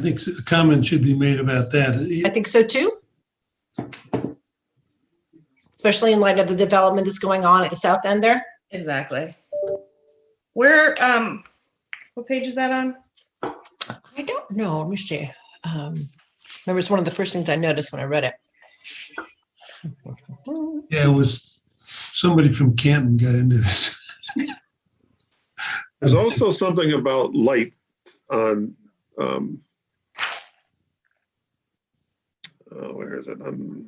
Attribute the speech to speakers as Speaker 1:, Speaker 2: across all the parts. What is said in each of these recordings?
Speaker 1: I think a comment should be made about
Speaker 2: I
Speaker 1: that.
Speaker 2: think so too. Especially in light of the development that's going on at the south end there.
Speaker 3: Exactly. Where, um, what page is that on?
Speaker 2: I don't know, let me see. Um, Remember, it's one of the first things I noticed when I read it.
Speaker 1: Yeah, it was, somebody from Canton got into this.
Speaker 4: There's also something about light on, um, uh, where is it? Um,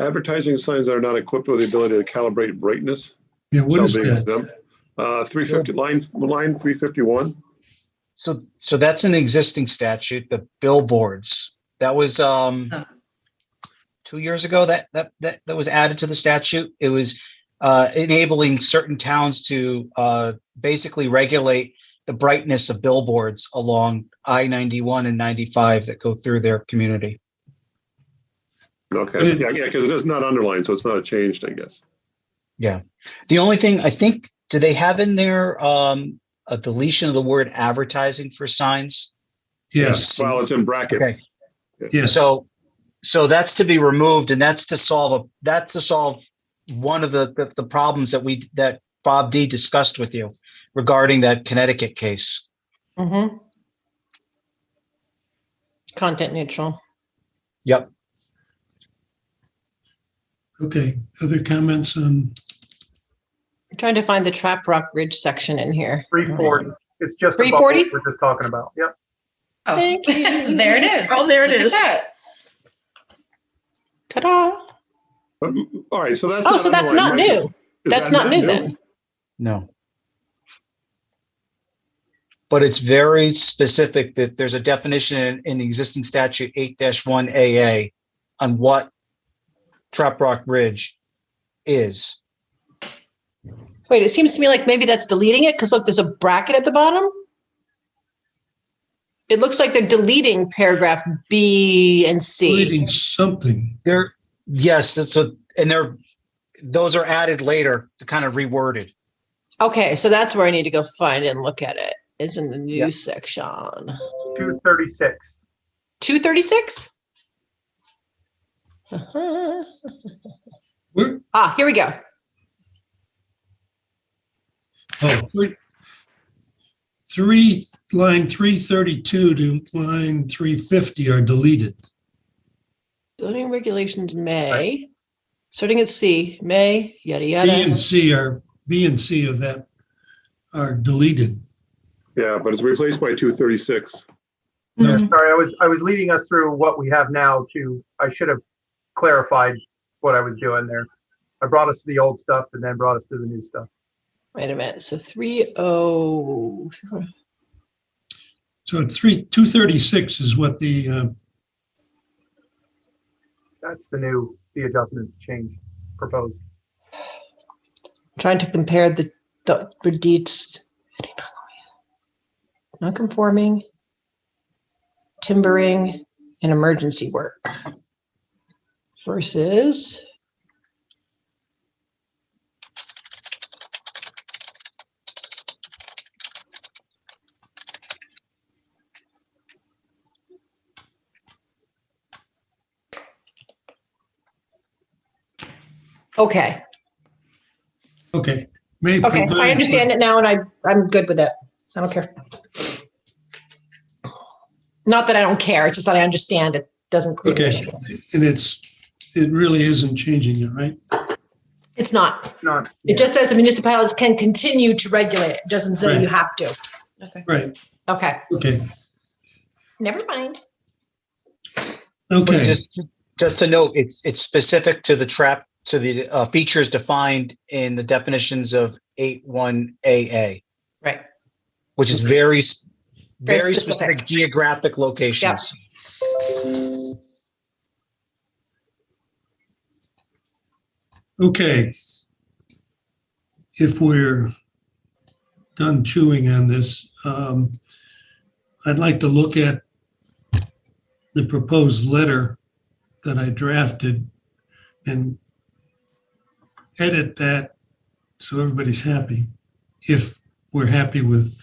Speaker 4: advertising signs that are not equipped with the ability to calibrate brightness.
Speaker 1: Yeah, what
Speaker 4: How
Speaker 1: is
Speaker 4: Oh, big is
Speaker 1: that?
Speaker 4: them? Uh, three fifty, line, line three fifty-one.
Speaker 5: So, so that's an existing statute, the billboards. That was, um,
Speaker 3: Huh.
Speaker 5: two years ago that, that, that, that was added to the statute. It was, uh, enabling certain towns to, uh, basically regulate the brightness of billboards along I ninety-one and ninety-five that go through their community.
Speaker 4: Okay, yeah, yeah, because it is not underlined, so it's not changed, I guess.
Speaker 5: The only thing I think, do they have in there, um, a deletion of the word advertising for signs?
Speaker 1: Yes,
Speaker 4: Well, it's in
Speaker 5: Okay.
Speaker 4: brackets.
Speaker 1: yes.
Speaker 5: So, so that's to be removed and that's to solve, a that's to solve one of the, the, the problems that we, that Bob D discussed with you regarding that Connecticut case.
Speaker 2: Mhm. Content neutral.
Speaker 5: Yep.
Speaker 1: Okay, other comments on,
Speaker 2: I'm trying to find the Trap Rock Ridge section in here.
Speaker 6: Three forty. It's just above
Speaker 2: 340?
Speaker 6: what we're just talking about. Yep.
Speaker 3: Oh,
Speaker 2: Thank you.
Speaker 3: There it is.
Speaker 2: Oh, there it
Speaker 3: Look at
Speaker 2: is.
Speaker 3: that.
Speaker 2: Ta-da.
Speaker 4: But, mm, All right, so that's.
Speaker 2: Oh, so that's not
Speaker 4: underlined.
Speaker 2: new.
Speaker 4: Is
Speaker 2: That's
Speaker 4: that
Speaker 2: not new then.
Speaker 5: No. But it's very specific that there's a definition in, in the existing statute eight one AA on what Trap Rock Ridge is.
Speaker 2: Wait, it seems to me like maybe that's deleting it because look, there's a bracket at the bottom. It looks like they're deleting paragraph B and C.
Speaker 1: reading something?
Speaker 5: There, yes, it's a, and there, those are added later to kind of reworded.
Speaker 2: Okay, so that's where I need to go find and look at it. It's in the
Speaker 5: Yeah.
Speaker 2: news section.
Speaker 6: Two thirty-six.
Speaker 2: 236?
Speaker 1: Where,
Speaker 2: Uh-huh. Ah, here we go.
Speaker 1: oh, three, three, line three thirty-two to line three fifty are deleted.
Speaker 2: Zoning regulations may, starting at C, may, yada,
Speaker 1: B and
Speaker 2: yada.
Speaker 1: C are, B and C of that are deleted.
Speaker 4: Yeah, but it's replaced by two thirty-six.
Speaker 2: Mm-hmm.
Speaker 1: No,
Speaker 6: Sorry, I was, I was leading us through what we have now to, I should have clarified what I was doing there. I brought us to the old stuff and then brought us to the new stuff.
Speaker 2: Wait a minute, so oh, 30,
Speaker 1: So it's three, two thirty-six is what the, uh,
Speaker 6: That's the new, the adjustment change proposed.
Speaker 2: trying to compare the, the reduced non-conforming timbering and emergency work versus okay
Speaker 1: okay. may
Speaker 2: Okay, I
Speaker 1: provide-
Speaker 2: understand it now and I, I'm good with it. I don't care. Not that I don't care, it's just that I understand it doesn't create an
Speaker 1: Okay.
Speaker 2: issue.
Speaker 1: And it's, it really isn't changing it, right?
Speaker 2: It's not.
Speaker 6: Not,
Speaker 2: It just says the municipalities can continue to regulate it. It doesn't say you
Speaker 1: Right.
Speaker 2: have to.
Speaker 3: Okay.
Speaker 1: Right,
Speaker 2: Okay,
Speaker 1: okay,
Speaker 2: never mind.
Speaker 5: But
Speaker 1: okay,
Speaker 5: just, just to note, it's, it's specific to the trap, to the uh, features defined in the definitions of eight one AA.
Speaker 2: Right.
Speaker 5: Which is very, s-
Speaker 2: Very
Speaker 5: very
Speaker 2: specific.
Speaker 5: specific geographic locations.
Speaker 1: okay. If we're done chewing on this, um, I'd like to look at the proposed letter that I drafted and edit that so everybody's happy, if we're happy with